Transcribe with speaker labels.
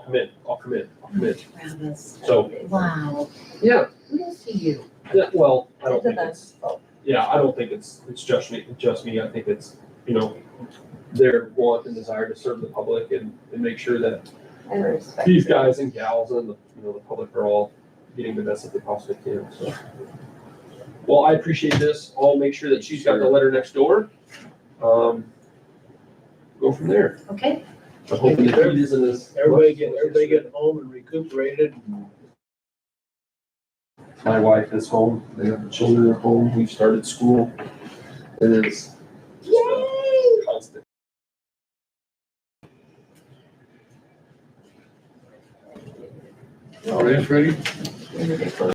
Speaker 1: commit, I'll commit, I'll commit.
Speaker 2: Travis.
Speaker 1: So,
Speaker 2: Wow,
Speaker 1: yeah,
Speaker 2: kudos to you.
Speaker 1: yeah, well, I
Speaker 2: You're
Speaker 1: don't
Speaker 2: the
Speaker 1: think it's,
Speaker 2: best. Oh,
Speaker 1: yeah, I don't think it's, it's just me, just me. I think it's, you know, their want and desire to serve the public and, and make sure that
Speaker 2: I respect.
Speaker 1: these guys and gals and the, you know, the public are all getting the best that they possibly can, so. Well, I appreciate this. I'll make sure that she's got the letter next door. Um, go from there.
Speaker 2: it. Okay,
Speaker 1: I'm hoping that it isn't as.
Speaker 3: Everybody get, everybody get home and recuperated. and
Speaker 1: My wife is home. They have the children at home. We've started school. It is. just a Constant.
Speaker 4: All right, Freddie?